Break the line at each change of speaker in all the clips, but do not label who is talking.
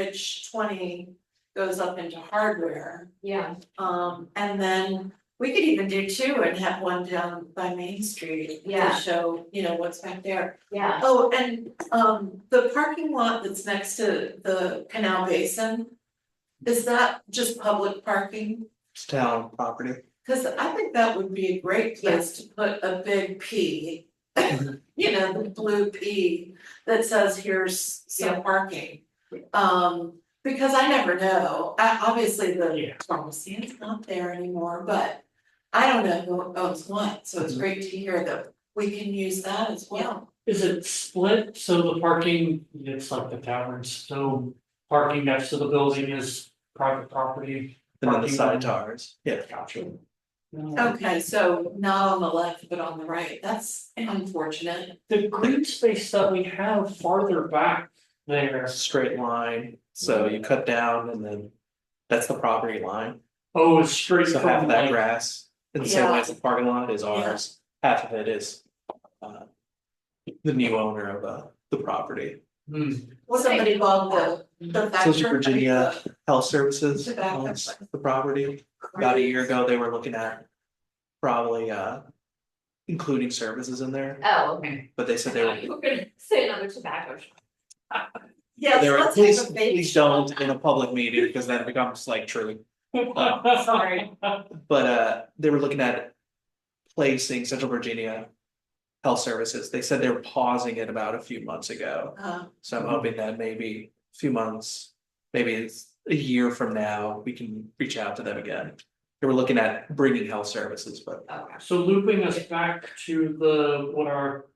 which twenty goes up into hardware.
yeah,
Um, and then we could even do two and have one down by Main Street to
Yeah.
show, you know, what's back there.
yeah,
Oh, and um, the parking lot that's next to the canal basin, is that just public parking?
It's town property.
Cause I think that would be a great place to put a big P. You know, the blue P that says here's
Yeah.
some parking.
Yeah.
Um, because I never know, I obviously the
Yeah.
pharmacy is not there anymore, but. I don't know who owns what, so it's
Mhm.
great to hear that we can use that as well.
Is it split, so the parking, it's like the taverns, so parking next to the building is private property?
And then the
Parking
side
lot.
towers, yeah.
Gotcha.
Oh.
Okay, so not on the left, but on the right, that's unfortunate,
The green space that we have farther back there,
A straight line, so you cut down and then that's the property line.
oh, it's straight
So half of
from
that
like,
grass, in the same way as the parking lot is ours, half of it is. uh, The new owner of uh the property,
hmm,
somebody bought the the factory.
Social Virginia Health Services
Tobacco.
owns the property. About a year ago, they were looking at probably uh including services in there,
oh, okay.
but they said they were
You were gonna say another tobacco shop.
Yes,
There,
let's
please,
have a baby.
please don't in a public meeting, because then it becomes like true,
Sorry.
but uh, they were looking at. Placing Central Virginia. Health Services, they said they were pausing it about a few months ago,
Uh,
so I'm hoping that maybe a few months. Maybe it's a year from now, we can reach out to them again. They were looking at bringing health services, but
Oh, gosh.
So looping us back to the, what our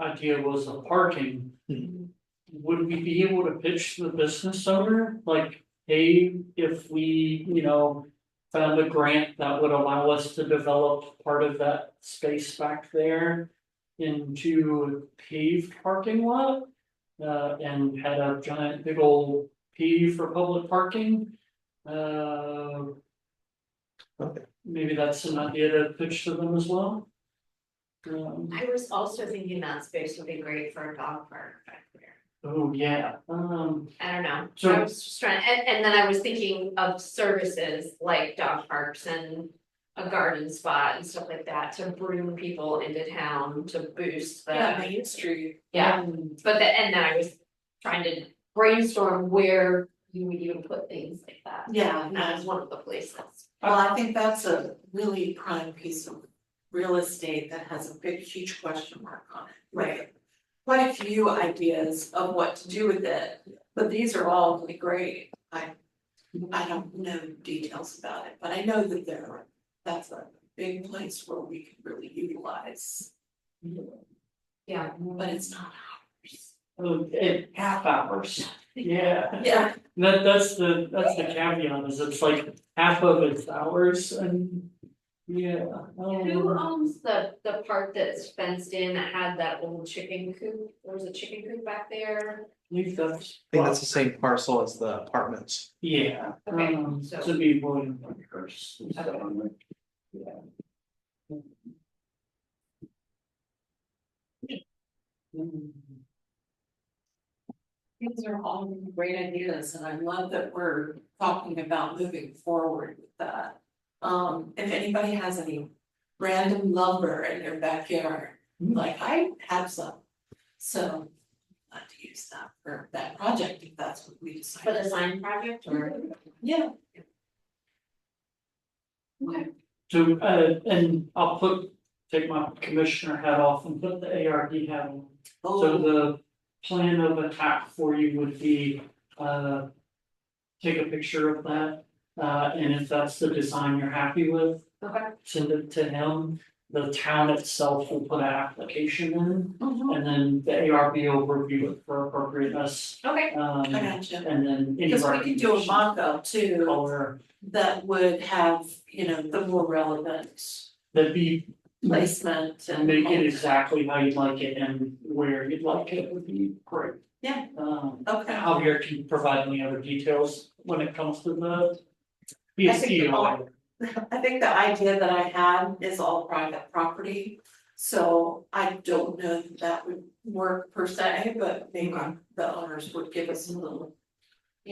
idea was of parking.
Mhm.
Would we be able to pitch the business owner, like, hey, if we, you know. Found a grant that would allow us to develop part of that space back there. Into a paved parking lot. Uh, and had a giant big old P for public parking. Uh,
Okay.
maybe that's an idea to pitch to them as well. Um,
I was also thinking that space would be great for a dog park back there.
oh, yeah, um,
I don't know,
So-
I was just trying, and and then I was thinking of services like dog parks and. A garden spot and stuff like that to bring people into town to boost
yeah,
the,
Main Street.
Yeah.
Um,
but the, and then I was. Trying to brainstorm where you would even put things like that.
Yeah,
And that
no.
was one of the places.
well, I think that's a really prime piece of real estate that has a big, huge question mark on it. Right. Quite a few ideas of what to do with it, but these are all really great. I, I don't know details about it, but I know that there, that's a big place where we can really utilize,
Yeah.
but it's not ours.
oh, and half hours, yeah.
Yeah.
That, that's the, that's the caveat, is it's like half of it's hours and, yeah.
Who
um,
owns the the part that's fenced in that had that old chicken coop, there was a chicken coop back there?
We've got.
I think that's the same parcel as the apartments.
Yeah,
Okay,
um,
so-
to be William Parkhurst, so, yeah. Mm.
These are all great ideas and I love that we're talking about moving forward with that. Um, if anybody has any random lumber in their backyard, like I have some. So I'd like to use that for that project if that's what we decide.
For the sign project or?
Yeah.
Okay.
So, uh, and I'll put, take my commissioner hat off and put the ARD hat on. So
Oh,
the plan of attack for you would be, uh. Take a picture of that, uh, and if that's the design you're happy with,
Okay.
send it to him. The town itself will put an application in,
mhm.
and then the ARB will review it for appropriateness,
Okay,
um,
I gotcha.
and then any
Cause we can do a
recommendations,
mock-up too
Color,
that would have, you know, the more relevant
that'd be,
placement and.
make it exactly how you'd like it and where you'd like it would be great.
Yeah.
Um.
Okay.
Javier can provide any other details when it comes to the.
I think the
BSC.
I think the idea that I had is all private property, so I don't know if that would work per se, but maybe the owners would give us a little